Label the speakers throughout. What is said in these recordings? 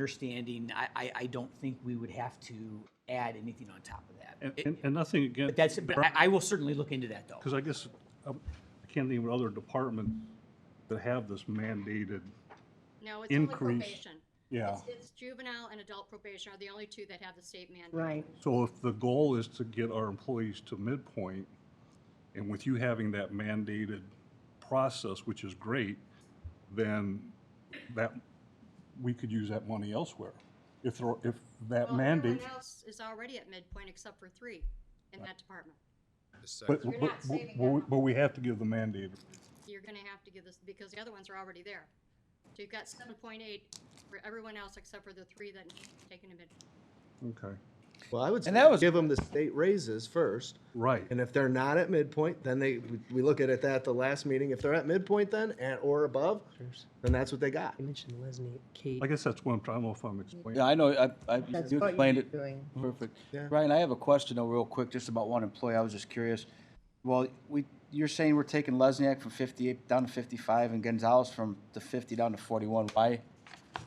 Speaker 1: understanding, I, I, I don't think we would have to add anything on top of that.
Speaker 2: And, and- and nothing against.
Speaker 1: But that's, but I, I will certainly look into that though.
Speaker 2: Because I guess, um, I can't think of other departments that have this mandated,
Speaker 3: No, it's only
Speaker 2: Increase.
Speaker 3: probation.
Speaker 2: yeah.
Speaker 3: It's- It's juvenile and adult probation are the only two that have the state mandate.
Speaker 4: Right.
Speaker 2: So if the goal is to get our employees to midpoint, and with you having that mandated process, which is great, then that, we could use that money elsewhere. If, there- if that
Speaker 3: Well,
Speaker 2: mandate,
Speaker 3: Everyone else is already at midpoint except for three in that department.
Speaker 2: but,
Speaker 4: You're
Speaker 2: but,
Speaker 4: not saving that
Speaker 2: but
Speaker 4: much.
Speaker 2: but we have to give the mandated.
Speaker 3: You're gonna have to give this, because the other ones are already there. So you've got seven point eight for everyone else except for the three that taken a midpoint.
Speaker 2: Okay.
Speaker 5: Well, I would say
Speaker 6: And that was-
Speaker 5: give them the state raises first.
Speaker 2: Right.
Speaker 5: And if they're not at midpoint, then they, we- we look at it at the last meeting. If they're at midpoint then, and, or above, then that's what they got.
Speaker 4: You mentioned Lesney, Kate.
Speaker 2: I guess that's what I'm, trying- I don't know if I'm
Speaker 6: Yeah,
Speaker 2: explaining.
Speaker 6: I know, I, I,
Speaker 4: That's
Speaker 6: you
Speaker 4: what
Speaker 6: explained
Speaker 4: you're
Speaker 6: it
Speaker 4: doing.
Speaker 6: perfect.
Speaker 5: Yeah.
Speaker 6: Ryan, I have a question though, real quick, just about one employee, I was just curious. Well, we, you're saying we're taking Lesniak from fifty-eight down to fifty-five and Gonzalez from the fifty down to forty-one, why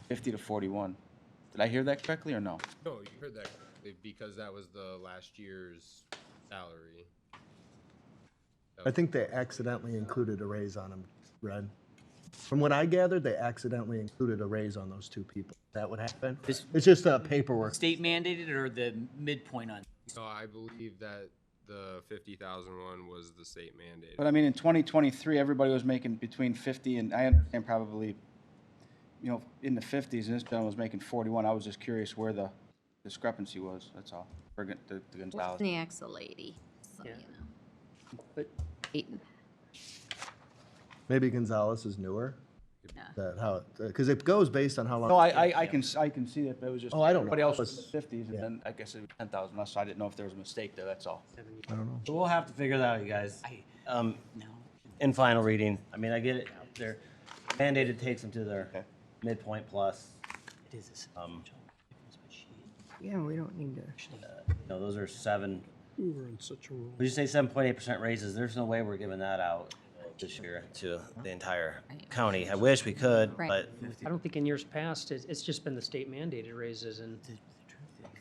Speaker 6: fifty to forty-one? Did I hear that correctly or no?
Speaker 7: No, you heard that correctly, because that was the last year's salary.
Speaker 5: I think they accidentally included a raise on them, Red. From what I gathered, they accidentally included a raise on those two people. That would happen.
Speaker 1: This-
Speaker 5: It's just uh, paperwork.
Speaker 1: State mandated or the midpoint on?
Speaker 7: So I believe that the fifty thousand one was the state mandate.
Speaker 6: But I mean, in 2023, everybody was making between 50 and, I understand probably, you know, in the 50s, and this gentleman was making 41. I was just curious where the discrepancy was, that's all, for Gon- the the Gonzalez.
Speaker 8: Wozniak's a lady, so, you know. Peyton.
Speaker 5: Maybe Gonzalez is newer.
Speaker 8: Yeah.
Speaker 5: That how, because it goes based on how long.
Speaker 6: No, I, I, I can, s- I can see that, but it was just.
Speaker 5: Oh, I don't know.
Speaker 6: Everybody else
Speaker 5: Let's-
Speaker 6: was in the 50s,
Speaker 5: yeah.
Speaker 6: and then I guess it was 10,000 less, so I didn't know if there was a mistake there, that's all.
Speaker 5: I don't know.
Speaker 9: So we'll have to figure that out, you guys. Um, in final reading, I mean, I get it, they're mandated takes them to their midpoint plus.
Speaker 1: It is a
Speaker 9: Um,
Speaker 1: substantial difference, but she
Speaker 4: Yeah, we don't need to.
Speaker 9: You know, those are seven. We were in such a rule. Would you say seven point eight percent raises? There's no way we're giving that out this year to the entire county. I wish we could,
Speaker 8: Right.
Speaker 9: but
Speaker 10: I don't think in years past, it's, it's just been the state mandated raises and,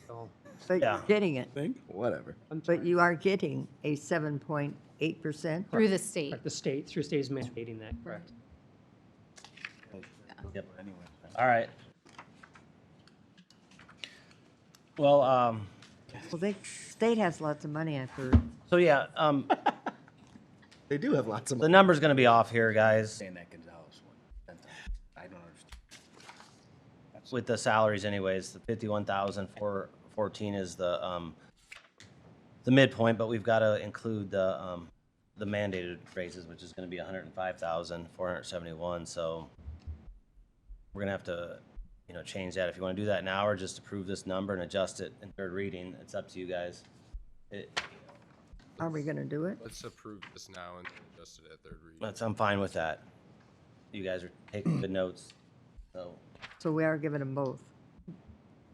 Speaker 10: so,
Speaker 4: But you're
Speaker 9: Yeah.
Speaker 4: getting it.
Speaker 5: Whatever.
Speaker 4: But you are getting a seven point eight percent.
Speaker 8: Through the state.
Speaker 10: like, the state, through state is mandating that, correct?
Speaker 9: Yep.
Speaker 6: Anyway.
Speaker 9: all right. Well, um,
Speaker 4: Well, they, state has lots of money, I've heard.
Speaker 9: so yeah, um,
Speaker 5: They do have lots of
Speaker 9: the number's gonna be off here, guys.
Speaker 6: Saying that Gonzalez one, I don't understand.
Speaker 9: with the salaries anyways, the fifty-one thousand four fourteen is the, um, the midpoint, but we've gotta include the, um, the mandated raises, which is gonna be hundred and five thousand four hundred seventy-one, so we're gonna have to, you know, change that. If you wanna do that now or just approve this number and adjust it in third reading, it's up to you guys. It,
Speaker 4: Are we gonna do it?
Speaker 7: Let's approve this now and adjust it at third reading.
Speaker 9: that's, I'm fine with that. You guys are taking good notes, so.
Speaker 4: So we are giving them both.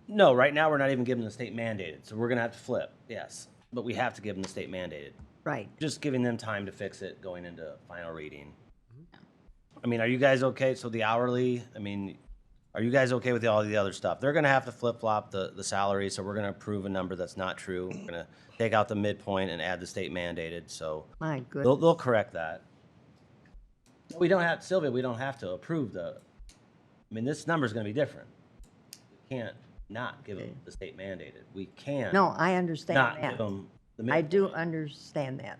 Speaker 9: No, right now we're not even giving the state mandated, so we're gonna have to flip, yes. But we have to give them the state mandated.
Speaker 4: Right.
Speaker 9: Just giving them time to fix it going into final reading. I mean, are you guys okay? So the hourly, I mean, are you guys okay with all the other stuff? They're gonna have to flip flop the, the salary, so we're gonna approve a number that's not true. We're gonna take out the midpoint and add the state mandated, so
Speaker 4: My
Speaker 9: they'll,
Speaker 4: goodness.
Speaker 9: they'll correct that. We don't have, Sylvia, we don't have to approve the, I mean, this number's gonna be different. We Can't not give them the state mandated. We can.
Speaker 4: No, I
Speaker 9: Not
Speaker 4: understand
Speaker 9: give
Speaker 4: that.
Speaker 9: them the
Speaker 4: I do
Speaker 9: midpoint.
Speaker 4: understand that.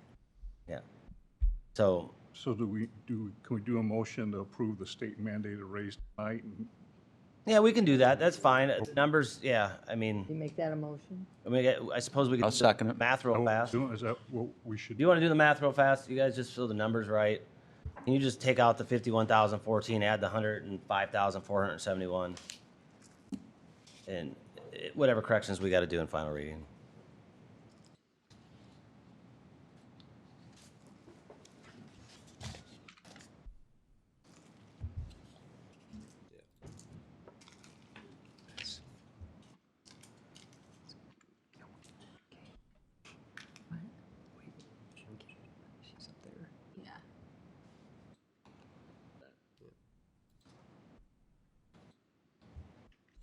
Speaker 9: Yeah. So,
Speaker 2: So do we, do, can we do a motion to approve the state mandated raise tonight and
Speaker 9: yeah, we can do that. That's fine. Uh, Numbers, yeah, I mean,
Speaker 4: You make that a motion?
Speaker 9: I mean, I- I suppose we could.
Speaker 6: I'll
Speaker 9: do the
Speaker 6: second it.
Speaker 9: Math real fast. Do
Speaker 2: Doing- Is that what we should
Speaker 9: you wanna do the math real fast? You guys just fill the numbers right. Can you just take out the fifty-one thousand fourteen, add the hundred and five thousand four hundred and seventy-one? And eh, whatever corrections we gotta do in final reading.